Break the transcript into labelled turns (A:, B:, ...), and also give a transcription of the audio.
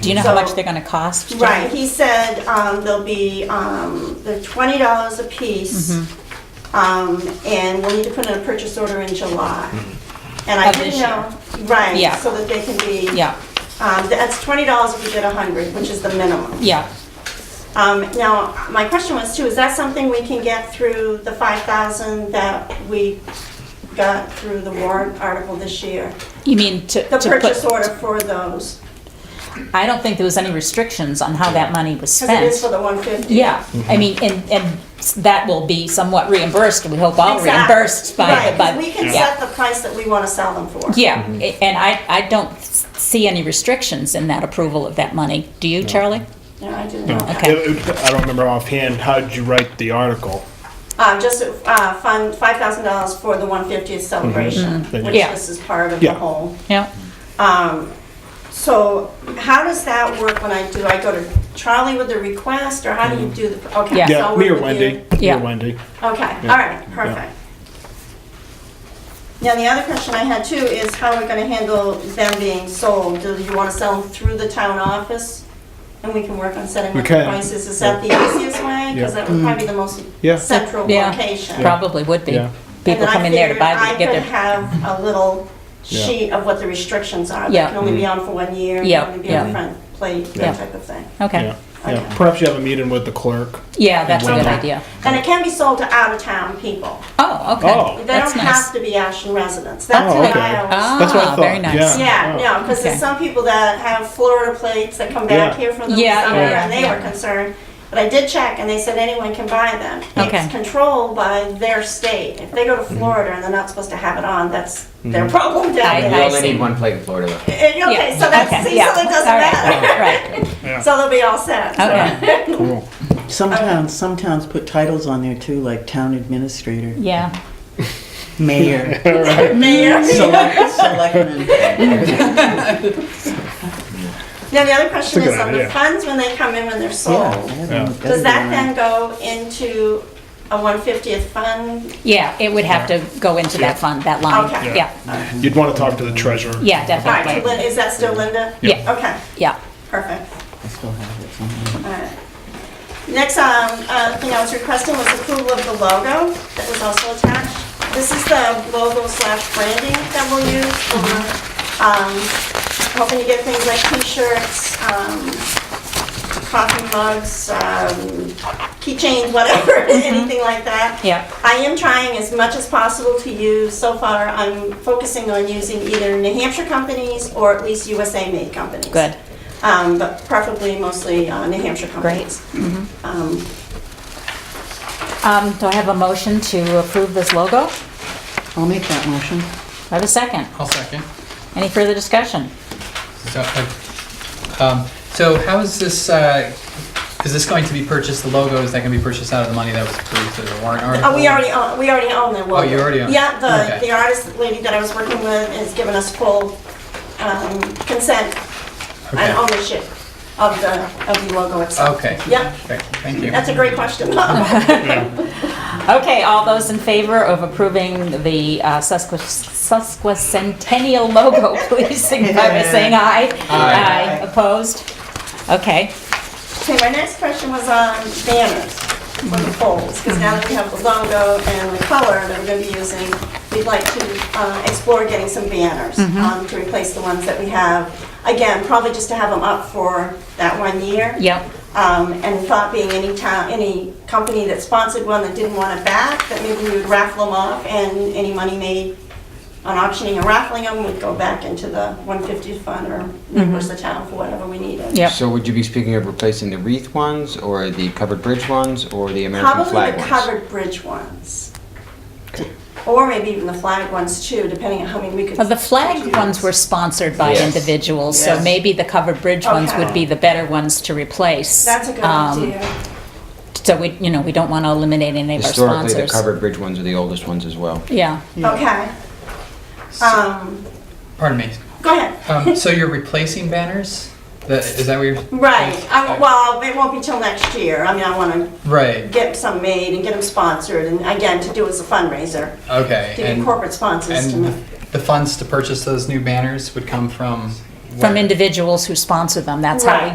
A: Do you know how
B: So-
A: much they're gonna cost?
B: Right, he said um, there'll be, um, they're twenty dollars a piece,
A: Mm-hmm.
B: um, and we'll need to put in a purchase order in July. And I
A: Of this
B: didn't
A: year.
B: know, right,
A: Mm-hmm. Yeah.
B: so that they can be.
A: Yeah,
B: Um, That's twenty dollars if you did a hundred, which is the minimum.
A: yeah.
B: Um, Now, my question was too, is that something we can get through the five thousand that we got through the warrant article this year?
A: You mean to,
B: The
A: to
B: purchase
A: put-
B: order for those,
A: I don't think there was any restrictions on how that money was
B: because it is for
A: spent.
B: the one fifty.
A: Yeah, I mean, and, and s- that will be somewhat reimbursed, we hope all
B: Exactly.
A: Oh, reimbursed by,
B: Right, 'cause
A: but,
B: we can
A: yeah.
B: set the price that we want to sell them for.
A: Yeah, a- and I, I don't s- see any restrictions in that approval of that money. Do you, Charlie?
B: No, I didn't know that.
A: Okay.
C: It- it- I don't remember offhand, how did you write the article?
B: Um, just, uh, fund five thousand dollars for the one fiftieth celebration,
C: Mhm.
B: which
A: Mm-hmm. Yeah.
B: this is part of
C: Mm-hmm. Yeah.
B: the whole.
A: Yeah,
B: Um, so how does that work when I do, I go to Charlie with the request, or how do you do the, okay.
A: Yeah.
B: so
C: Yeah,
B: I'll
C: Mm-hmm. me
B: work with
C: or Wendy,
B: you.
C: me
A: Yeah.
C: or Wendy.
B: Okay, all
C: Yeah.
B: right, perfect. Now, the other question I had too is how we're gonna handle them being sold. Do you wanna sell them through the town office? And we can work on setting
C: We
B: up the
C: can.
B: prices. Is that the easiest way? Because
C: Yeah.
B: that would probably be the most
C: Yeah.
B: central
A: Yeah.
B: location.
A: probably would be.
C: Yeah.
A: People come in there to buy,
B: And then
A: get
B: I figured
A: their,
B: I could have a little
C: Yeah. Mm-hmm.
B: sheet of what the restrictions are.
A: Yeah.
B: That can only be on for one year,
A: Yeah,
B: can only be on
A: yeah.
B: the front plate,
A: Yeah.
B: that type of thing.
A: okay.
C: Yeah, yeah.
B: Okay.
C: Perhaps you have a meeting with the clerk.
A: Yeah, that's a good
C: Okay.
A: idea.
B: And it can be sold to out-of-town people.
A: Oh,
C: Oh.
A: okay,
B: They
A: that's
B: don't
A: nice.
B: have to be Ashland residents. That's
C: Oh,
B: what
C: okay.
B: I always.
C: That's what I
A: Ah, very
C: thought,
A: nice.
C: yeah. Oh.
B: Yeah, no, because
A: Okay.
B: there's some people that have Florida plates that come back
C: Yeah.
B: here from the
A: Yeah,
B: summer,
A: yeah, yeah,
B: and they
A: yeah.
B: were concerned. But I did check, and they said anyone can buy them.
A: Okay.
B: It's controlled by their state. If they go
C: Mm-hmm.
B: to Florida and they're not supposed to have it on, that's their problem down
A: I-
D: We
B: there.
D: only
A: see.
D: need E one plate in Florida though.
B: And, Okay,
A: Yeah,
B: so that's,
A: okay,
B: see,
A: yeah,
B: so that doesn't
A: all right,
B: matter.
A: Right,
B: So they'll be all set. so.
A: okay,
C: Cool.
E: Some towns, some towns put titles on there too, like town administrator,
A: yeah.
E: mayor,
B: Mayor.
E: select- selectman.
B: Mm-hmm. Now, the other question
C: That's a
B: is
C: good
B: on the
C: idea.
B: funds when they come in when they're
E: Yeah,
B: sold.
E: yeah.
B: Oh. Does that then go into a 150th fund?
A: Yeah, it would have to go into that fund, that line.
B: Okay.
A: Yeah,
C: You'd want to talk to the treasurer.
A: yeah,
B: All right, to
A: definitely.
B: Lin- is that still Linda?
A: Yeah,
B: Okay,
A: yeah.
B: perfect.
E: I still have it somewhere.
B: All right. Next um, uh, thing I was requesting was approval of the logo that was also attached. This is the logo slash branding that we'll use for, um, hoping to get things like t-shirts, um, coffee mugs, um, keychains, whatever, anything like that.
A: Mm-hmm. Yeah.
B: I am trying as much as possible to use, so far, I'm focusing on using either New Hampshire companies or at least USA-made companies.
A: Good.
B: Um, But preferably mostly uh, New Hampshire companies. Um,
A: Um, do I have a motion to approve this logo?
E: I'll make that motion.
A: I have a second.
F: I'll second.
A: Any further discussion?
F: So, uh, um, so how is this, uh, is this going to be purchased, the logo, is that gonna be purchased out of the money that was approved through the warrant article?
B: Oh, we already own, we already own the logo.
F: Oh, you already own it.
B: Yeah, the,
F: Okay.
B: the artist lady that I was working with has given us full um, consent
F: Okay. Oh.
B: and ownership of the, of the logo itself.
F: Okay.
B: Yeah,
F: Okay, Thank you.
B: that's a great question.
A: Okay, all those in favor of approving the uh, susque- sesquicentennial logo, please signify by saying aye.
F: Aye.
A: Opposed? Okay,
B: Okay, my next question was on banners for the poles, because now that we have the logo and the color that we're going to be using, we'd like to uh, explore getting some banners um, to replace the ones that we have. Again, probably just to have them up for that one year.
A: yep,
B: Um, And thought being any town, any company that sponsored one that didn't want it back, that maybe we would raffle them off, and any money made on auctioning or raffling them would go back into the 150 fund or reimburse the town for whatever we needed.
A: yep.
D: So would you be speaking of replacing the wreath ones, or the covered bridge ones, or the American
B: Probably
D: flag
B: the
D: ones?
B: covered bridge ones. Or maybe even the flag ones too, depending on how many we could.
A: Well, Uh, the flag ones were sponsored by
D: Yes.
A: individuals, so
E: Yes.
A: maybe the covered bridge ones would
B: Okay.
A: be the better ones to replace.
B: That's a good
A: Um,
B: idea.
A: So we, you know, we don't want to eliminate any of our
D: Historically, the
A: sponsors.
D: covered bridge ones are the oldest ones as well.
A: Yeah,
B: Okay. Um,
F: Pardon me.
B: go ahead.
F: Um, so you're replacing banners? That, is that what you're?
B: Right, I- well, it won't be till next year. I mean, I want to
F: Right,
B: get some made and get them sponsored, and again, to do as a fundraiser,
F: okay.
B: to get
F: And,
B: corporate sponsors to
F: and
B: make.
F: the funds to purchase those new banners would come from
A: from
F: Right.
A: individuals who sponsor them. That's how we
B: Right.